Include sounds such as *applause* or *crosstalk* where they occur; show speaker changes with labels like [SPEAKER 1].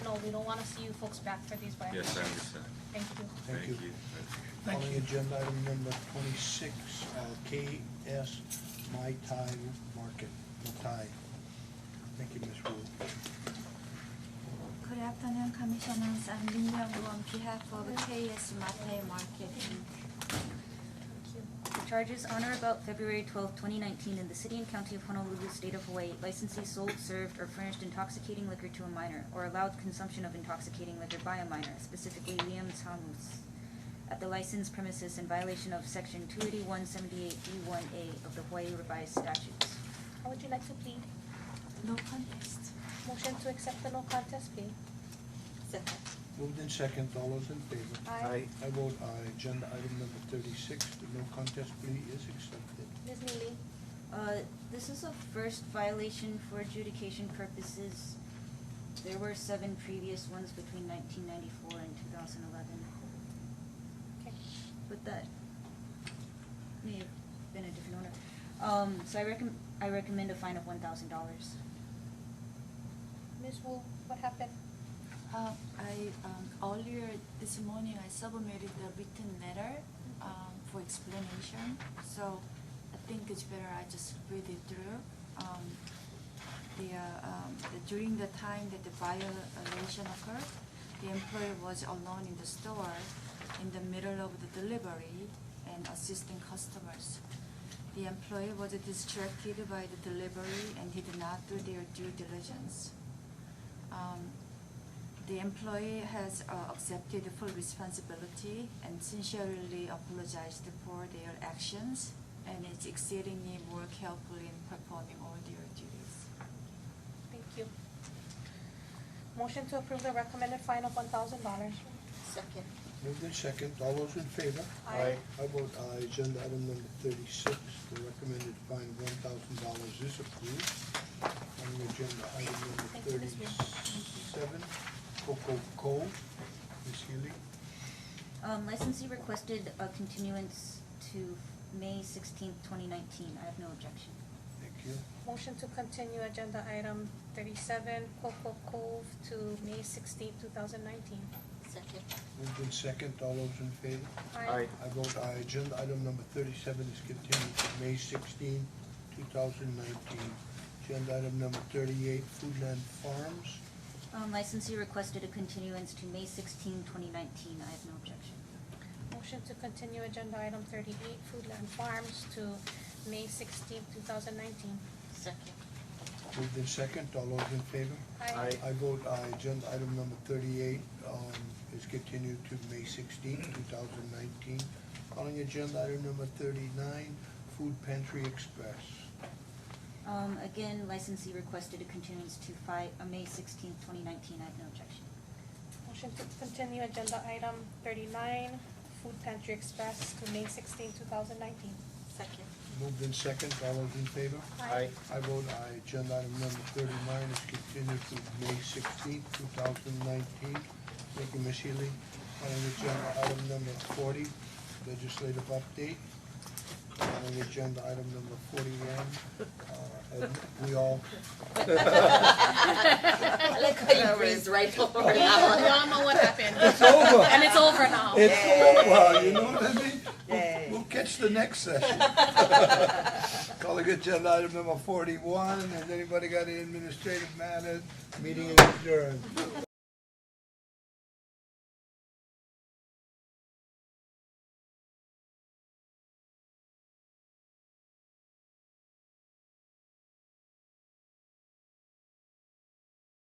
[SPEAKER 1] we don't wanna see you folks back for these violations.
[SPEAKER 2] Yes, I understand.
[SPEAKER 1] Thank you.
[SPEAKER 2] Thank
[SPEAKER 3] Thank
[SPEAKER 2] you.
[SPEAKER 3] you.
[SPEAKER 4] Thank
[SPEAKER 3] Calling
[SPEAKER 4] you.
[SPEAKER 3] agenda item number twenty-six, uh, KS Mai Tai Market, Matai. Thank you, Ms. Wu.
[SPEAKER 5] Good afternoon, Commissioners. I'm Lee Young on behalf of KS Mate Market.
[SPEAKER 6] The charges on or about February 12, 2019, in the city and county of Honolulu, state of Hawaii, licensee sold, served, or furnished intoxicating liquor to a minor, or allowed consumption of intoxicating liquor by a minor, specifically Liam Tamus, at the licensed premises in violation of Section 28178D1A E of the Hawaii Revised Statutes.
[SPEAKER 1] How would you like to plead?
[SPEAKER 5] No contest.
[SPEAKER 1] Motion to accept the no contest plea.
[SPEAKER 5] Second.
[SPEAKER 3] Moved in second, all those in favor?
[SPEAKER 1] Aye.
[SPEAKER 3] I vote aye, agenda item number thirty-six, the no contest plea is accepted.
[SPEAKER 1] Ms. Neely,
[SPEAKER 6] Uh, this is a first violation for adjudication purposes. There were seven previous ones between 1994 and 2011.
[SPEAKER 1] okay.
[SPEAKER 6] but that may have been a different owner. Um, so I recommend, I recommend a fine of one thousand dollars.
[SPEAKER 1] Ms. Wu, what happened?
[SPEAKER 5] Uh, I, um, earlier this morning, I submitted the written letter, um, for explanation. So I think it's better I just read it through. Um, the, uh, um, the- during the time that the violation occurred, the employee was alone in the store in the middle of the delivery and assisting customers. The employee was distracted by the delivery and did not do their due diligence. Um, the employee has uh, accepted full responsibility and sincerely apologized for their actions and is exceedingly more careful in performing all their duties.
[SPEAKER 1] Thank you. Motion to approve the recommended fine of one thousand dollars.
[SPEAKER 5] Second.
[SPEAKER 3] Moved in second, all those in favor?
[SPEAKER 1] Aye.
[SPEAKER 3] I vote aye, agenda item number thirty-six, the recommended fine of one thousand dollars is approved. Calling agenda item number
[SPEAKER 1] Thank you, Ms. Wu.
[SPEAKER 3] thirty-seven, Coco Cove, Ms. Healy.
[SPEAKER 6] Um, licensee requested a continuance to May sixteenth, twenty nineteen. I have no objection.
[SPEAKER 3] Thank you.
[SPEAKER 1] Motion to continue agenda item thirty-seven, Coco Cove to May sixteenth, two thousand nineteen.
[SPEAKER 5] Second.
[SPEAKER 3] Moved in second, all those in favor?
[SPEAKER 1] Aye.
[SPEAKER 3] I vote aye, agenda item number thirty-seven is continued to May 16, thousand nineteen. Agenda item number thirty-eight, Foodland Farms.
[SPEAKER 6] Um, licensee requested a continuance to May 16, 2019. I have no objection.
[SPEAKER 1] Motion to continue agenda item thirty-eight, Foodland Farms to May sixteenth, two thousand nineteen.
[SPEAKER 5] Second.
[SPEAKER 3] Moved in second, all those in favor?
[SPEAKER 1] Aye.
[SPEAKER 3] I vote aye, agenda item number thirty-eight, um, is continued to May 16, thousand nineteen. Calling agenda item number thirty-nine, Food Pantry Express.
[SPEAKER 6] Um, again, licensee requested a continuance to fi- uh, May sixteenth, twenty nineteen. I have no objection.
[SPEAKER 1] Motion to continue agenda item thirty-nine, Food Pantry Express to May sixteenth, two thousand nineteen.
[SPEAKER 5] Second.
[SPEAKER 3] Moved in second, all those in favor?
[SPEAKER 1] Aye.
[SPEAKER 3] I vote aye. Agenda item number thirty-nine is continued to May sixteenth, two thousand nineteen. Thank you, Ms. Healy. Calling agenda item number forty, legislative update. Calling agenda item number forty-one, uh, and we all,
[SPEAKER 7] *laughs* I like how you breezed right
[SPEAKER 3] *laughs*
[SPEAKER 7] over
[SPEAKER 1] We
[SPEAKER 7] that
[SPEAKER 1] all know what happened.
[SPEAKER 3] It's over.
[SPEAKER 1] And it's over now.
[SPEAKER 3] it's over, you know what I mean? We'll- We'll catch the next session. Calling agenda item number forty-one, has anybody got any administrative matters? Meeting is adjourned.